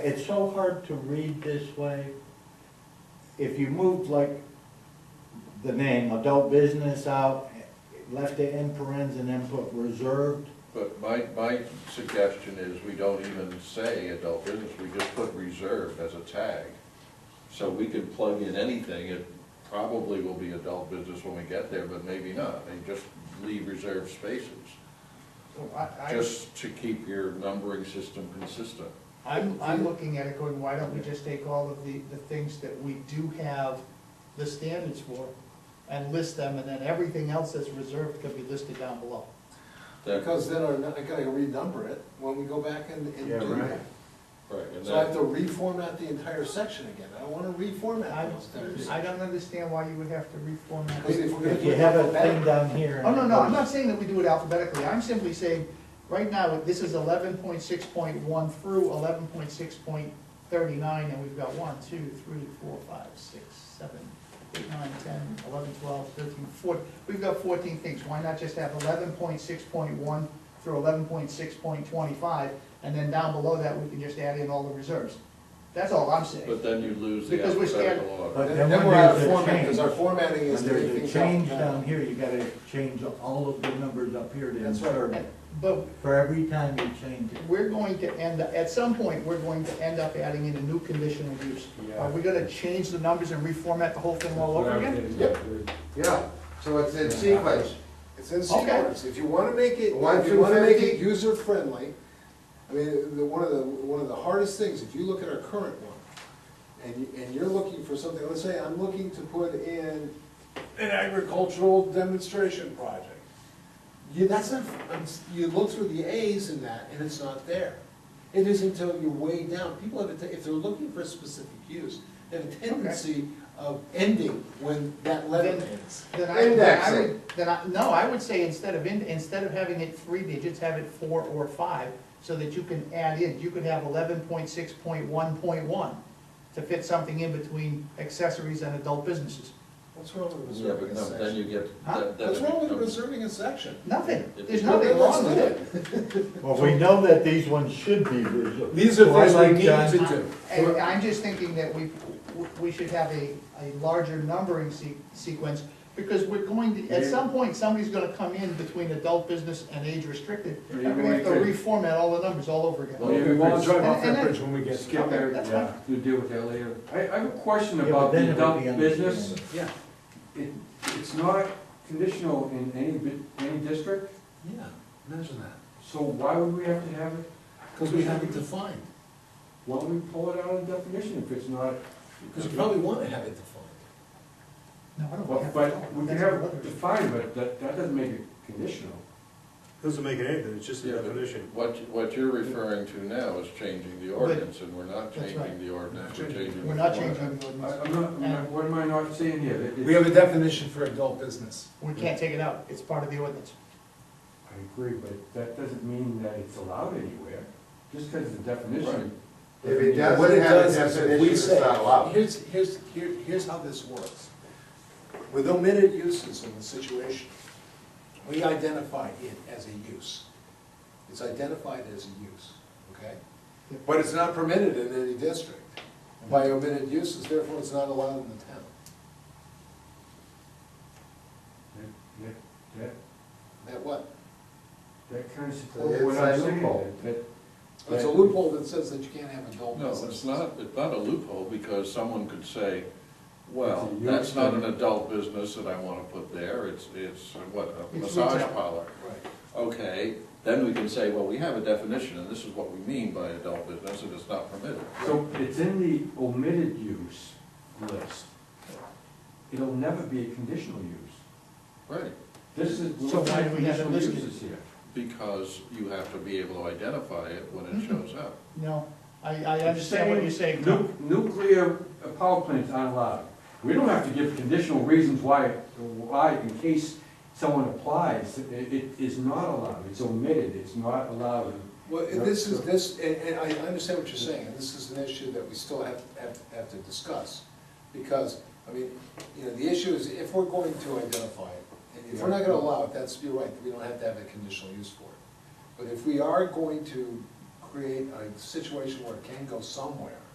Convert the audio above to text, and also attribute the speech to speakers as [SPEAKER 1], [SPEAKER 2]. [SPEAKER 1] It's so hard to read this way. If you moved like the name adult business out, left it in parentheses and then put reserved,
[SPEAKER 2] But my, my suggestion is we don't even say adult business, we just put reserved as a tag. So we can plug in anything, it probably will be adult business when we get there, but maybe not, and just leave reserved spaces.
[SPEAKER 3] So I, I,
[SPEAKER 2] Just to keep your numbering system consistent.
[SPEAKER 3] I'm, I'm looking at it going, why don't we just take all of the, the things that we do have the standards for and list them, and then everything else that's reserved can be listed down below.
[SPEAKER 2] That-
[SPEAKER 4] Because then I I gotta renumber it when we go back and, and
[SPEAKER 1] Yeah,
[SPEAKER 4] do
[SPEAKER 1] right.
[SPEAKER 4] that.
[SPEAKER 2] Right, and
[SPEAKER 4] So I have to
[SPEAKER 2] that,
[SPEAKER 4] reformat the entire section again, I don't wanna
[SPEAKER 3] I,
[SPEAKER 4] reformat those things.
[SPEAKER 3] I don't understand why you would have to reformat.
[SPEAKER 4] Because if
[SPEAKER 3] it.
[SPEAKER 4] we're gonna
[SPEAKER 1] if
[SPEAKER 4] do
[SPEAKER 1] you
[SPEAKER 4] it
[SPEAKER 1] have a thing
[SPEAKER 4] alphabetical-
[SPEAKER 1] down here.
[SPEAKER 3] Oh, no, no, I'm not saying that we do it alphabetically, I'm simply saying, right now, this is eleven point six point one through eleven point six point thirty-nine, and we've got one, two, three, four, five, six, seven, eight, nine, ten, eleven, twelve, thirteen, fourteen. We've got fourteen things, why not just have eleven point six point one through eleven point six point twenty-five, and then down below that, we can just add in all the reserves. That's all I'm saying.
[SPEAKER 2] but then you lose the
[SPEAKER 3] Because we're scared-
[SPEAKER 2] alphabetical order.
[SPEAKER 1] But
[SPEAKER 4] Then
[SPEAKER 1] then
[SPEAKER 4] then
[SPEAKER 1] when
[SPEAKER 4] we're out
[SPEAKER 1] there's
[SPEAKER 4] of
[SPEAKER 1] a
[SPEAKER 4] format, because
[SPEAKER 1] change,
[SPEAKER 4] our formatting
[SPEAKER 1] when
[SPEAKER 4] is
[SPEAKER 1] there's a
[SPEAKER 4] everything.
[SPEAKER 1] change down here, you gotta change all of the numbers up here to
[SPEAKER 4] That's right.
[SPEAKER 1] insert it.
[SPEAKER 3] But
[SPEAKER 1] For every time you change it.
[SPEAKER 3] we're going to end, at some point, we're going to end up adding in a new conditional use. Are we gonna change the numbers and reformat the whole thing all over again?
[SPEAKER 5] Yeah, so it's in sequence.
[SPEAKER 4] It's in
[SPEAKER 3] Okay.
[SPEAKER 4] sequence, if you wanna make it,
[SPEAKER 5] One
[SPEAKER 4] if you
[SPEAKER 5] through
[SPEAKER 4] wanna make
[SPEAKER 5] 50.
[SPEAKER 4] it user friendly, I mean, the, one of the, one of the hardest things, if you look at our current one, and, you- and you're looking for something, let's say I'm looking to put in an agricultural demonstration project. You, that's not, I'm s- you look through the As in that, and it's not there. It isn't until you're way down, people have, a te- if they're looking for a specific use, they have a tendency of ending when that letter
[SPEAKER 3] Then-
[SPEAKER 4] ends.
[SPEAKER 3] Then I- then I
[SPEAKER 5] Index
[SPEAKER 3] would-
[SPEAKER 5] it.
[SPEAKER 3] Then I, no, I would say instead of in, instead of having it three digits, have it four or five, so that you can add in, you could have eleven point six point one point one to fit something in between accessories and adult businesses.
[SPEAKER 4] What's wrong with
[SPEAKER 2] Yeah,
[SPEAKER 4] reserving
[SPEAKER 2] but
[SPEAKER 4] a
[SPEAKER 2] no,
[SPEAKER 4] section?
[SPEAKER 2] then you get.
[SPEAKER 3] Huh?
[SPEAKER 2] that- that
[SPEAKER 4] What's wrong with
[SPEAKER 2] becomes-
[SPEAKER 4] reserving a section?
[SPEAKER 3] Nothing,
[SPEAKER 2] If
[SPEAKER 3] there's
[SPEAKER 2] you-
[SPEAKER 3] nothing
[SPEAKER 4] Let's
[SPEAKER 3] wrong with
[SPEAKER 4] do
[SPEAKER 3] it.
[SPEAKER 1] Well, we know that these ones should be reserved.
[SPEAKER 4] These are
[SPEAKER 1] So I
[SPEAKER 4] things we
[SPEAKER 1] like
[SPEAKER 4] need
[SPEAKER 1] John's-
[SPEAKER 4] to do.
[SPEAKER 3] Um, And I'm just thinking that we, we should have a, a larger numbering se- sequence, because we're going to, at some point, somebody's gonna come in between adult business and age restricted, and we're gonna have to reformat all the numbers all over
[SPEAKER 2] Well,
[SPEAKER 3] again.
[SPEAKER 6] Oh, Yeah, we won't drive off
[SPEAKER 3] And-
[SPEAKER 6] that
[SPEAKER 3] and
[SPEAKER 6] bridge when we get
[SPEAKER 3] Okay,
[SPEAKER 6] there.
[SPEAKER 3] that's fine.
[SPEAKER 6] We'll deal with that later. I, I have a question
[SPEAKER 1] Yeah, but
[SPEAKER 6] about
[SPEAKER 1] then
[SPEAKER 6] the
[SPEAKER 1] it would
[SPEAKER 6] adult
[SPEAKER 1] be under-
[SPEAKER 6] business.
[SPEAKER 4] Yeah.
[SPEAKER 6] It, it's not conditional in any, bi- any district,
[SPEAKER 4] Yeah, imagine that.
[SPEAKER 6] so why would we have to have it?
[SPEAKER 4] Because we have it defined,
[SPEAKER 6] Why don't we pull it out of definition if it's not?
[SPEAKER 4] because you probably want to have it defined.
[SPEAKER 3] No, I don't
[SPEAKER 6] Well,
[SPEAKER 3] have to.
[SPEAKER 6] But we can
[SPEAKER 3] That's
[SPEAKER 6] have
[SPEAKER 3] another
[SPEAKER 6] it
[SPEAKER 3] issue.
[SPEAKER 6] defined, but that, that doesn't make it conditional.
[SPEAKER 7] Doesn't make it anything, it's just a
[SPEAKER 2] Yeah, but
[SPEAKER 7] definition.
[SPEAKER 2] What, what you're referring to now is changing the ordinance, and we're not
[SPEAKER 3] That's right.
[SPEAKER 2] changing the ordinance, we're changing.
[SPEAKER 3] We're
[SPEAKER 2] the
[SPEAKER 3] not
[SPEAKER 2] format.
[SPEAKER 3] changing the
[SPEAKER 6] I,
[SPEAKER 3] ordinance,
[SPEAKER 6] I'm not, I'm not- what am I not saying here? That it's-
[SPEAKER 4] a definition for adult business.
[SPEAKER 3] we can't take it out, it's part of the ordinance.
[SPEAKER 6] I agree, but that doesn't mean that it's allowed anywhere, just because it's a
[SPEAKER 2] Right.
[SPEAKER 6] definition.
[SPEAKER 5] If it
[SPEAKER 6] doesn't
[SPEAKER 4] What
[SPEAKER 5] doesn't
[SPEAKER 4] it
[SPEAKER 5] have a
[SPEAKER 4] does is if
[SPEAKER 5] definition,
[SPEAKER 4] we
[SPEAKER 5] it's
[SPEAKER 4] say,
[SPEAKER 5] not allowed.
[SPEAKER 4] here's, here's, here, here's how this works. With omitted uses in the situation, we identify it as a use. It's identified as a use, okay? But it's not permitted in any district by omitted uses, therefore it's not allowed in the town.
[SPEAKER 6] That- that- that-
[SPEAKER 4] That what?
[SPEAKER 6] That kind of
[SPEAKER 5] It's
[SPEAKER 6] supports what I'm
[SPEAKER 5] a
[SPEAKER 6] saying,
[SPEAKER 5] loophole.
[SPEAKER 6] that- that-
[SPEAKER 4] It's a loophole that says that you can't have adult
[SPEAKER 2] No,
[SPEAKER 4] businesses.
[SPEAKER 2] it's not, it's not a loophole, because someone could say, well,
[SPEAKER 6] It's a use
[SPEAKER 2] that's not an
[SPEAKER 6] thing.
[SPEAKER 2] adult business that I wanna put there, it's, it's, uh, what, a
[SPEAKER 3] It's
[SPEAKER 2] massage
[SPEAKER 3] retail.
[SPEAKER 2] parlor.
[SPEAKER 4] Right.
[SPEAKER 2] Okay, then we can say, well, we have a definition, and this is what we mean by adult business, and it's not permitted.
[SPEAKER 6] So it's in the omitted use list. It'll never be a conditional use.
[SPEAKER 2] Right,
[SPEAKER 6] This is, we're
[SPEAKER 3] So
[SPEAKER 6] looking
[SPEAKER 3] why
[SPEAKER 6] at
[SPEAKER 3] do we have it
[SPEAKER 6] conditional
[SPEAKER 3] listed?
[SPEAKER 6] uses here.
[SPEAKER 2] because you have to be able to identify it when it
[SPEAKER 3] Mhm.
[SPEAKER 2] shows up.
[SPEAKER 3] No, I, I understand what you're saying, no,
[SPEAKER 6] Nu- Nuclear uh, power plants aren't allowed. We don't have to give conditional reasons why, why in case someone applies. It, it is not allowed, it's omitted, it's not allowed.
[SPEAKER 4] Well, and this is, this, and, and I understand what you're saying, and this is an issue that we still have, have, have to discuss. Because, I mean, you know, the issue is if we're going to identify it, and if we're not gonna allow it, that's, you're right, we don't have to have a conditional use for it. But if we are going to create a situation where it can go somewhere.